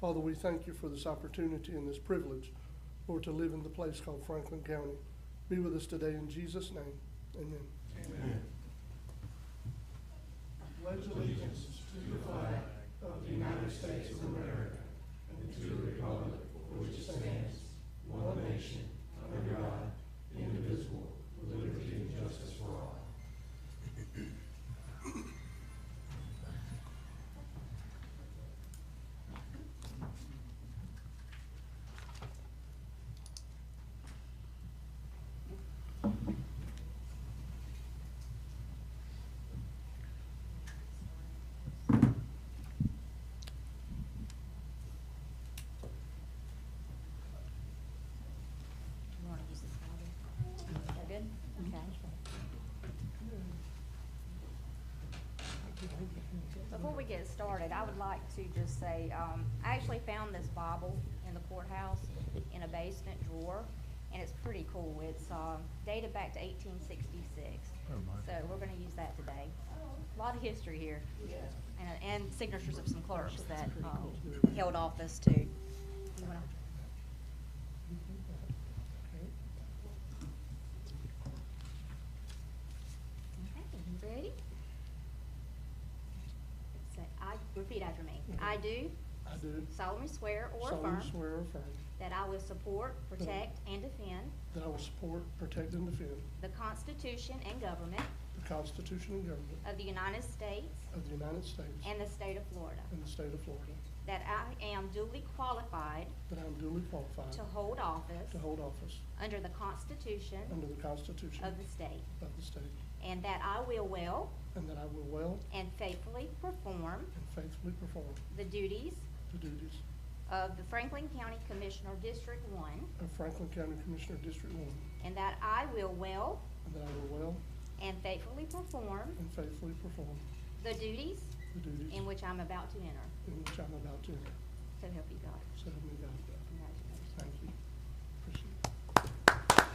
Father, we thank you for this opportunity and this privilege, Lord, to live in the place called Franklin County. Be with us today in Jesus' name. Amen. You wanna use this one? Mm-hmm. Is that good? Okay. Before we get started, I would like to just say, um, I actually found this Bible in the courthouse in a basement drawer, and it's pretty cool. It's, uh, dated back to eighteen sixty-six. So we're gonna use that today. A Lot of history here. And, and signatures of some clerks that, um, held office too. You wanna- Okay, you ready? Say, I, repeat after me. I do I do solemnly swear or solemnly affirm swear or affirm that I will support, Hmm. protect, and defend that I will support, protect, and defend the Constitution and government the Constitution and government of the United States of the United States and the state of Florida, and the state of Florida, that I am duly qualified that I am duly qualified to hold office to hold office under the Constitution under the Constitution of the state, of the state, and that I will well and that I will well and faithfully perform and faithfully perform the duties the duties of the Franklin County Commissioner District One, of Franklin County Commissioner District One, and that I will well and that I will well And faithfully perform and faithfully perform the duties the duties in which I'm about to enter. in which I'm about to enter. So help you God. So help me God. Congratulations. Thank you. Appreciate it.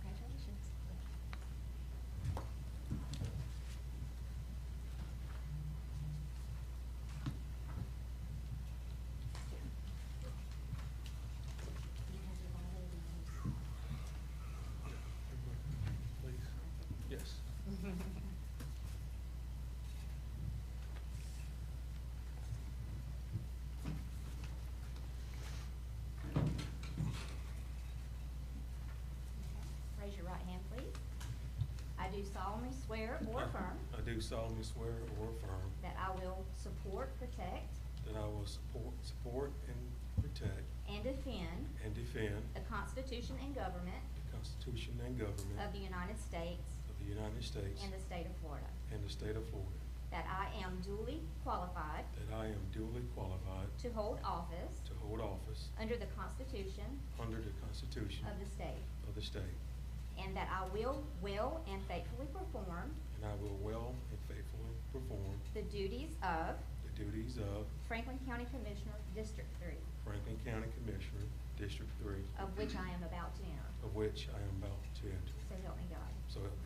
Congratulations. Yes. Raise your right hand, please. I do solemnly swear or affirm I do solemnly swear or affirm that I will support, protect, that I will support, support and protect and defend and defend the Constitution and government the Constitution and of government the United States of the United States and the state of Florida, and the state of Florida, that I am duly qualified that I am duly qualified to hold office to hold office under the Constitution under the Constitution of the state, of the state, And that I will will and faithfully perform and I will well and faithfully perform the duties of the duties of Franklin County Commissioner, District Three, Franklin County Commissioner, District Three, of which I am about to enter. of which I am about to enter. So help me God. So help me